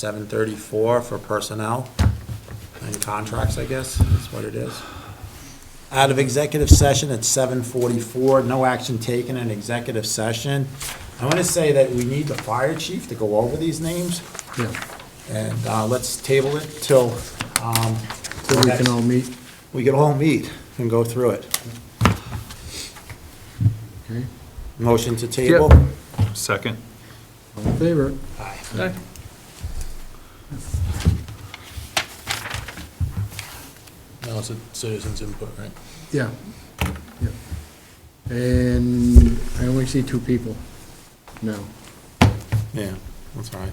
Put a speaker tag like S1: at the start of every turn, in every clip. S1: seven thirty-four for personnel and contracts, I guess, is what it is. Out of executive session at seven forty-four, no action taken in executive session. I want to say that we need the fire chief to go over these names,
S2: Yeah,
S1: and uh, let's table it till, um,
S2: so we can all meet,
S1: we can all meet and go through it.
S2: okay?
S1: Motion to table?
S3: Second.
S2: All in favor?
S1: Aye.
S4: Now it's a citizens input, right?
S2: Yeah, yeah. And I only see two people No.
S1: Yeah, that's all right.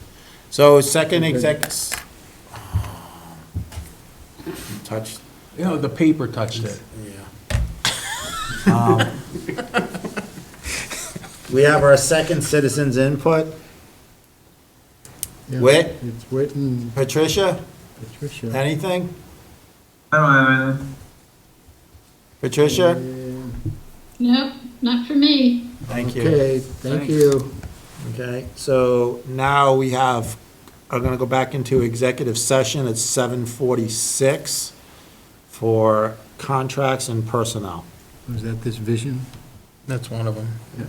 S1: So second exec. um, Touch,
S4: You know, the paper touched it.
S1: yeah. Um, We have our second citizens input.
S2: Yeah,
S1: Whit?
S2: It's Whit and
S1: Patricia,
S2: Patricia.
S1: anything?
S5: I don't have anything.
S1: Patricia?
S2: And-
S6: Nope, not for me.
S1: Thank you.
S2: Okay, thank you.
S1: Okay, so now we have, are gonna go back into executive session at seven forty-six for contracts and personnel.
S2: Was that this vision?
S4: That's one of them.
S2: Yeah.